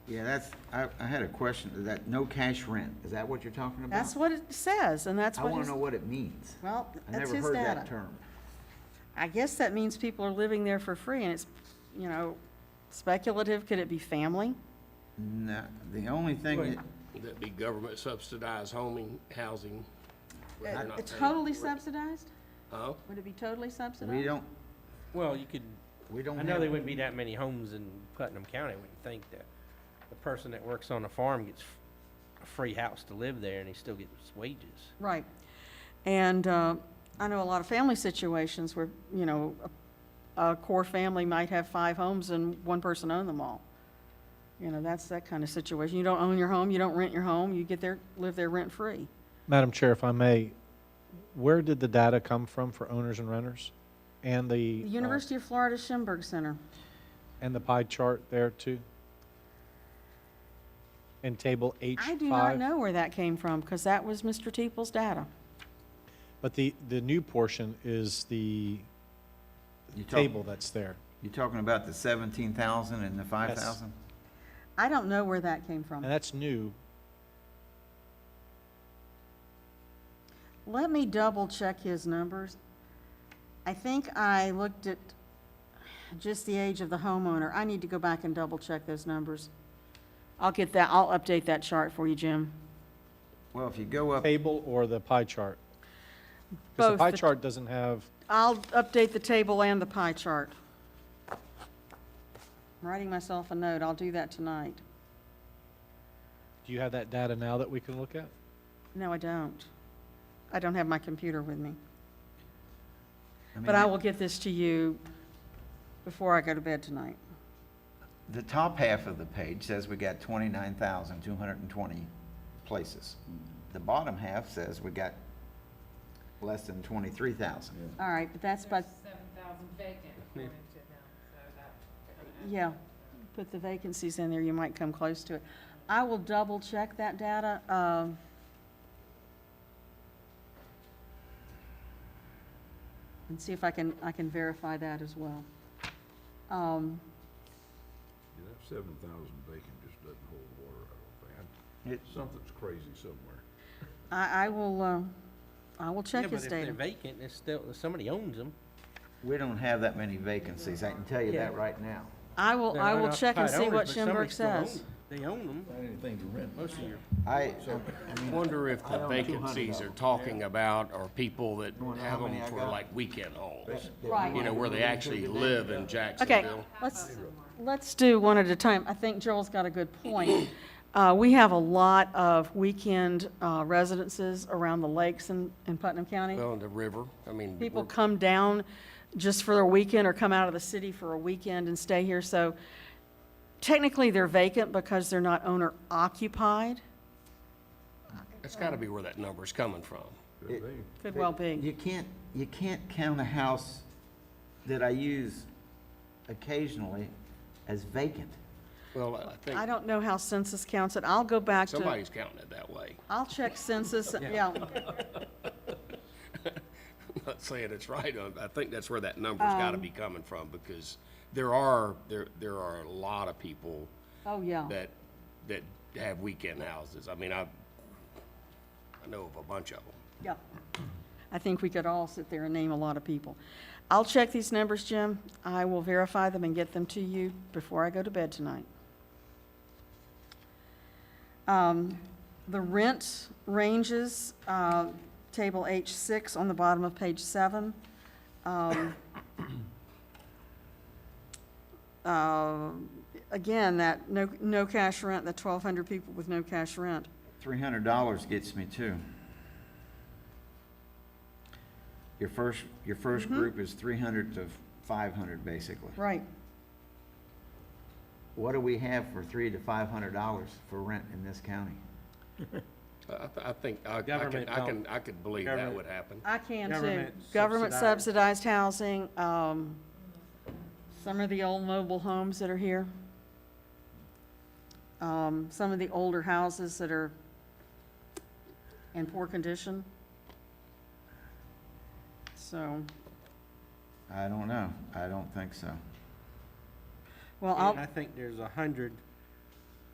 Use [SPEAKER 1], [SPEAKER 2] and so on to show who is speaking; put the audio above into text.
[SPEAKER 1] Yeah, that's, I, I had a question, Is that no cash rent, is that what you're talking about?
[SPEAKER 2] That's what it says, and that's
[SPEAKER 1] I
[SPEAKER 2] what.
[SPEAKER 1] wanna
[SPEAKER 2] he's-
[SPEAKER 1] know what it means.
[SPEAKER 2] Well,
[SPEAKER 1] I
[SPEAKER 2] that's
[SPEAKER 1] never
[SPEAKER 2] his
[SPEAKER 1] heard that
[SPEAKER 2] data.
[SPEAKER 1] term.
[SPEAKER 2] I guess that means people are living there for free, and it's, you know, speculative. Could it be family?
[SPEAKER 1] No, the only thing, that-
[SPEAKER 3] That be government subsidized homing, housing. where they're not
[SPEAKER 2] It's
[SPEAKER 3] paying
[SPEAKER 2] Uh, totally
[SPEAKER 3] for it.
[SPEAKER 2] subsidized?
[SPEAKER 3] Huh?
[SPEAKER 2] Would it be totally subsidized?
[SPEAKER 1] we don't,
[SPEAKER 4] Well, you could,
[SPEAKER 1] we don't
[SPEAKER 4] I
[SPEAKER 1] have.
[SPEAKER 4] know there wouldn't be that many homes in Putnam County, I wouldn't think that. The person that works on a farm gets f- a free house to live there and he still gets wages.
[SPEAKER 2] Right. And uh, I know a lot of family situations where, you know, a a core family might have five homes and one person owned them all. You know, that's that kind of situation. You don't own your home, you don't rent your home, you get there, live there rent-free.
[SPEAKER 5] Madam Chair, if I may, where did the data come from for owners and renters? And the,
[SPEAKER 2] The
[SPEAKER 5] uh,
[SPEAKER 2] University of Florida Schimberg Center.
[SPEAKER 5] and the pie chart there too? And table H
[SPEAKER 2] I
[SPEAKER 5] five?
[SPEAKER 2] do not know where that came from, because that was Mr. Teeple's data.
[SPEAKER 5] But the, the new portion is the
[SPEAKER 1] you talk-
[SPEAKER 5] table that's there.
[SPEAKER 1] You're talking about the seventeen thousand and the five thousand?
[SPEAKER 2] I don't know where that came
[SPEAKER 5] And
[SPEAKER 2] from.
[SPEAKER 5] that's new.
[SPEAKER 2] Let me double-check his numbers. I think I looked at just the age of the homeowner. I need to go back and double-check those numbers. I'll get that, I'll update that chart for you, Jim.
[SPEAKER 1] Well, if you go up,
[SPEAKER 5] Table or the pie chart? 'Cause
[SPEAKER 2] Both
[SPEAKER 5] the pie
[SPEAKER 2] the-
[SPEAKER 5] chart doesn't have,
[SPEAKER 2] I'll update the table and the pie chart. I'm writing myself a note. I'll do that tonight.
[SPEAKER 5] do you have that data now that we can look at?
[SPEAKER 2] No, I don't. I don't have my computer with me.
[SPEAKER 1] I
[SPEAKER 2] But I
[SPEAKER 1] mean,
[SPEAKER 2] will get this to you before I go to bed tonight.
[SPEAKER 1] the top half of the page says we got twenty-nine thousand, two hundred and twenty places. The bottom half says we got less than twenty-three thousand.
[SPEAKER 2] All right, but that's by,
[SPEAKER 6] seven thousand vacant, according to them, so that.
[SPEAKER 2] yeah, put the vacancies in there, you might come close to it. I will double check that data. um, And see if I can, I can verify that as well. Um,
[SPEAKER 7] Yeah, that seven thousand bacon just doesn't hold water, I don't think. I-
[SPEAKER 1] It-
[SPEAKER 7] Something's crazy somewhere.
[SPEAKER 2] I, I will, uh, I will
[SPEAKER 4] Yeah,
[SPEAKER 2] check
[SPEAKER 4] but
[SPEAKER 2] his
[SPEAKER 4] if they're
[SPEAKER 2] data.
[SPEAKER 4] Vacant, it's still, somebody owns them.
[SPEAKER 1] We don't have that many vacancies, I can tell you that
[SPEAKER 4] Yeah.
[SPEAKER 1] right now.
[SPEAKER 2] I will, I will check and see what Schimberg says.
[SPEAKER 4] They own them,
[SPEAKER 7] Not anything to rent.
[SPEAKER 4] most of your,
[SPEAKER 1] I,
[SPEAKER 3] Wonder if
[SPEAKER 1] I
[SPEAKER 3] the
[SPEAKER 1] own 200 of
[SPEAKER 3] vacancies are
[SPEAKER 1] them.
[SPEAKER 3] talking about are people that
[SPEAKER 1] wanna know
[SPEAKER 3] have
[SPEAKER 1] how many
[SPEAKER 3] them
[SPEAKER 1] I
[SPEAKER 3] for
[SPEAKER 1] got?
[SPEAKER 3] like weekend homes.
[SPEAKER 2] Right.
[SPEAKER 3] You know, where they actually live in
[SPEAKER 2] Okay,
[SPEAKER 3] Jacksonville.
[SPEAKER 2] let's, let's do one at a time. I think Joel's got a good point. Uh, we have a lot of weekend uh, residences around the lakes in, in Putnam County.
[SPEAKER 3] Well, in the river, I mean.
[SPEAKER 2] People
[SPEAKER 3] we're-
[SPEAKER 2] come down just for their weekend or come out of the city for a weekend and stay here, so technically they're vacant because they're not owner occupied.
[SPEAKER 3] It's gotta be where that number's coming from.
[SPEAKER 1] It-
[SPEAKER 2] Could well be.
[SPEAKER 1] You can't, you can't count a house that I use occasionally as vacant.
[SPEAKER 3] Well, I
[SPEAKER 2] I
[SPEAKER 3] think
[SPEAKER 2] don't know how census counts it. I'll go back to,
[SPEAKER 3] somebody's counting it that way.
[SPEAKER 2] I'll check census, yeah.
[SPEAKER 3] I'm not saying it's right, uh, I think that's where that number's
[SPEAKER 2] Um.
[SPEAKER 3] gotta be coming from, because there are, there, there are a lot of people
[SPEAKER 2] Oh, yeah.
[SPEAKER 3] that, that have weekend houses. I mean, I, I know of a bunch of them.
[SPEAKER 2] Yeah. I think we could all sit there and name a lot of people. I'll check these numbers, Jim. I will verify them and get them to you before I go to bed tonight. Um, The rent ranges, uh, Table H6 on the bottom of page 7. Um, um, Again, that no, no cash rent, the 1,200 people with no cash rent.
[SPEAKER 1] Three hundred dollars gets me two. Your first, your first group is three hundred to five hundred, basically.
[SPEAKER 2] Mm-hmm. Right.
[SPEAKER 1] What do we have for three to five hundred dollars for rent in this county?
[SPEAKER 3] I, th- I think, I I can,
[SPEAKER 4] Government
[SPEAKER 3] I
[SPEAKER 4] don't-
[SPEAKER 3] can, I could believe that
[SPEAKER 4] government-
[SPEAKER 3] would happen.
[SPEAKER 2] I can too.
[SPEAKER 4] Government
[SPEAKER 2] Government subsidized
[SPEAKER 4] subsidized.
[SPEAKER 2] housing, um, some of the old mobile homes that are here. Um, some of the older houses that are in poor condition. So,
[SPEAKER 1] I don't know. I don't think so.
[SPEAKER 2] well,
[SPEAKER 4] and
[SPEAKER 2] I'll,
[SPEAKER 4] I think there's a hundred